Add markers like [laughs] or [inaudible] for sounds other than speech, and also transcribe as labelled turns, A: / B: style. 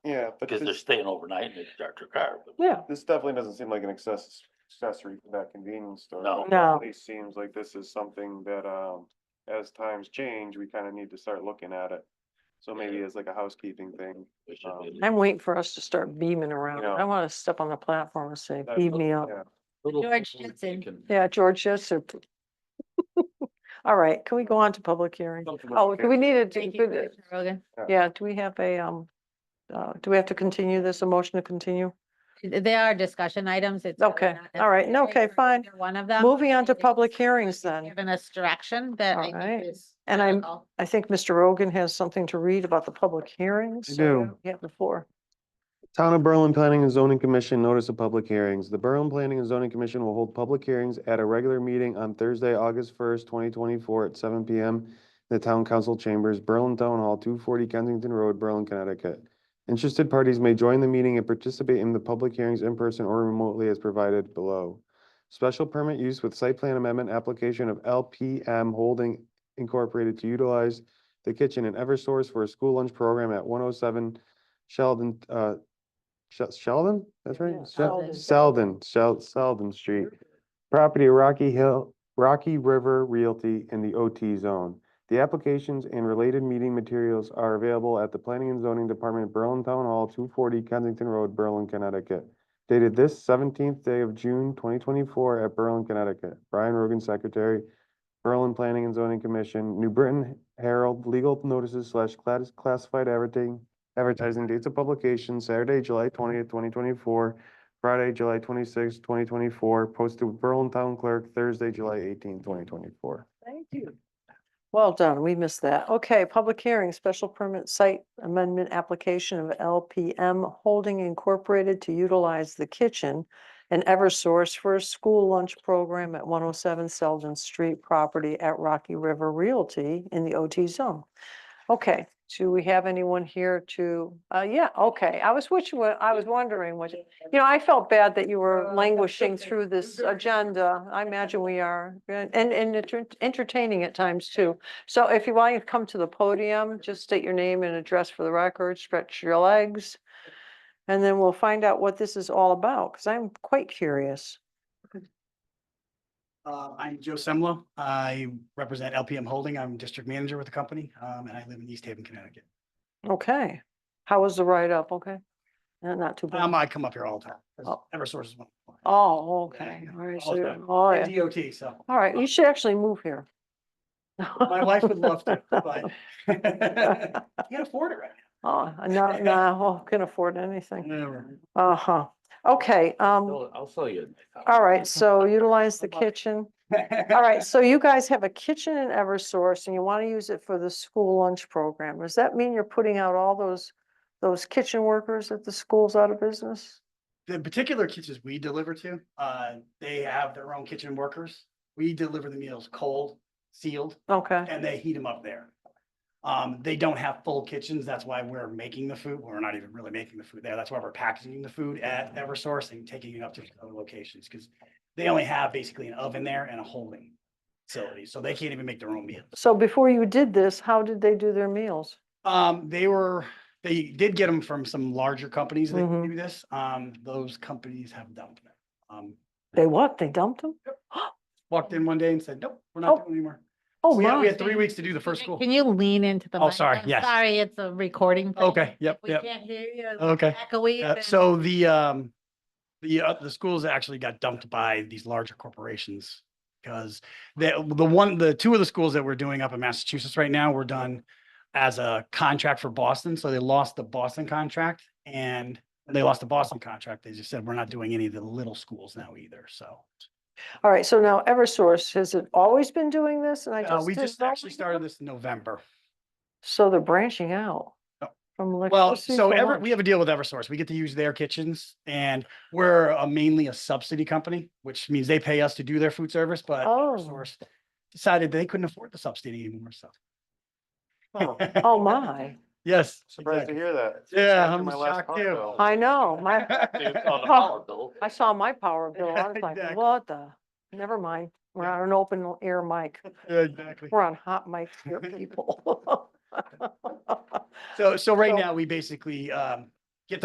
A: but
B: because they're
A: this,
B: staying overnight and they start their car. but-
C: Yeah,
A: this definitely doesn't seem like an access, accessory to that convenience store.
B: No.
A: It
C: No.
A: definitely seems like this is something that, um, as times change, we kind of need to start looking at it. So maybe
B: Yeah.
A: it's like a housekeeping thing.
B: we should
A: Um,
B: be-
C: I'm waiting for us to start beaming around.
A: Yeah.
C: I want to step on the platform and say,
A: That-
C: beam me up.
A: yeah.
D: Little
E: George
D: forward
E: Jensen.
D: thinking.
C: Yeah, George, yes, sir. [laughs] All right, can we go on to public hearing?
A: Come to public
C: Oh, do we need a,
E: Thank
C: do-
E: you,
C: do-
E: Commissioner Rogan.
C: yeah, do we have a, um, uh, do we have to continue this, a motion to continue?
E: They are discussion items. It's. really
C: Okay,
E: not
C: all right, no,
E: necessary
C: okay,
E: for
C: fine.
E: either One of them.
C: Moving on to
E: It is
C: public hearings
E: you've
C: then.
E: Given us direction that
C: All
E: I
C: right.
E: think is.
C: And I'm-
E: critical.
C: I think Mr. Rogan has something to read about the public hearings.
A: I
C: so
A: do.
C: Yeah, before.
A: Town of Berlin Planning and Zoning Commission Notice of Public Hearings. The Berlin Planning and Zoning Commission will hold public hearings at a regular meeting on Thursday, August first, twenty twenty-four at seven P M. The Town Council Chambers, Berlin Town Hall, two forty Kensington Road, Berlin, Connecticut. Interested parties may join the meeting and participate in the public hearings in person or remotely as provided below. Special permit use with site plan amendment application of L P M Holding Incorporated to utilize the kitchen and Eversource for a school lunch program at one oh seven Sheldon, uh, Shel- Sheldon, that's right?
C: Yeah,
A: Shel-
E: Sheldon.
A: Sheldon, Shel- Sheldon Street. Property of Rocky Hill, Rocky River Realty in the OT zone. The applications and related meeting materials are available at the Planning and Zoning Department, Berlin Town Hall, two forty Kensington Road, Berlin, Connecticut. Dated this seventeenth day of June, twenty twenty-four at Berlin, Connecticut. Brian Rogan, Secretary, Berlin Planning and Zoning Commission, New Britain Herald, legal notices slash class- classified advertising, advertising dates of publication, Saturday, July twentieth, twenty twenty-four, Friday, July twenty-sixth, twenty twenty-four, posted with Berlin Town Clerk, Thursday, July eighteenth, twenty twenty-four.
C: Thank you. Well done, we missed that. Okay, public hearing, special permit site amendment application of LPM Holding Incorporated to utilize the kitchen and Eversource for a school lunch program at one oh seven Selden Street property at Rocky River Realty in the OT zone. Okay, do we have anyone here to, uh, yeah, okay, I was, which, I was wondering what, you know, I felt bad that you were
E: Uh,
C: languishing through this agenda. I imagine we are, and, and enter- entertaining at times too. So if you want to come to the podium, just state your name and address for the record, stretch your legs. And then we'll find out what this is all about, because I'm quite curious.
F: Uh, I'm Joe Semlo. I represent LPM Holding. I'm district manager with the company, um, and I live in East Haven, Connecticut.
C: Okay, how was the write-up? Okay, Uh, not too
F: Um,
C: bad.
F: I come up here all the time. 'cause
C: Oh.
F: Eversource is one. of my-
C: Oh, okay, all right, so,
F: all the
C: you're-
F: time.
C: oh,
F: And
C: yeah,
F: DOT, so
C: all right, you should actually move here.
F: my wife would love
C: [laughs]
F: to, but [laughs] you can't afford it right
C: Oh, no, no, can afford anything.
F: [laughs] now.
C: Uh-huh. Okay, um,
B: I'll I'll sell you.
C: all right, so utilize the
F: Good luck.
C: kitchen. All right, so you guys have a kitchen in Eversource and you want to use it for the school lunch program. Does that mean you're putting out all those, those kitchen workers at the schools out of business?
F: The particular kitchens we deliver to, uh, they have their own kitchen workers. We deliver the meals cold, sealed,
C: Okay,
F: and they heat them up there. Um, they don't have full kitchens, that's why we're making the food, we're not even really making the food there, that's why we're packaging the food at Eversource and taking it up to other locations, because they only have basically an oven there and a holding facility, so they can't even make their own meals.
C: so before you did this, how did they do their meals?
F: Um, they were, they did get them from some larger companies that
E: Mm-hmm.
C: Mhm.
F: do this, um, those companies have dumped them. Um,
C: They what? They dumped them?
F: walked in one day and said, nope, we're not
C: Oh.
F: doing it anymore.
C: Oh,
F: We had- We
C: my.
F: had three weeks to do the first school.
E: Can you lean into the?
F: Oh,
E: mic?
F: sorry,
E: I'm
F: yes.
E: Sorry, it's a recording. thing.
F: Okay, yep,
E: We
F: yep,
E: can't hear you. it's
F: okay.
E: Echoey.
F: Uh,
E: then-
F: So the, um, the, uh, the schools actually got dumped by these larger corporations. Because the, the one, the two of the schools that we're doing up in Massachusetts right now were done as a contract for Boston. So they lost the Boston contract and they lost the Boston contract. They just said, we're not doing any of the little schools now either. So
C: All right, so now Eversource, has it always been doing this? And I
F: uh,
C: just.
F: we
C: didn't
F: just
C: know?
F: actually started this in November.
C: So they're branching out
F: Oh.
C: from.
F: Well,
C: electricity
F: so
C: to
F: ever,
C: lunch.
F: we have a deal with Eversource. We get to use their kitchens and we're a- mainly a subsidy company, which means they pay us to do their food service, but
C: Oh.
F: Eversource decided they couldn't afford the subsidy anymore, so.
C: Oh, Oh, my.
F: Yes.
A: Surprised to
F: exactly.
A: hear that.
F: Yeah,
A: After
F: I'm
A: my last
F: shocked
A: car
F: too.
A: bill.
C: I know,
F: [laughs]
C: my, I
B: I
C: saw my power bill. I was like,
F: Exactly.
C: what the? Never mind. We're on an open air mic.
F: Yeah, Exactly.
C: We're on hot mics here, people. [laughs]
F: So, so right
C: So-
F: now, we basically, um,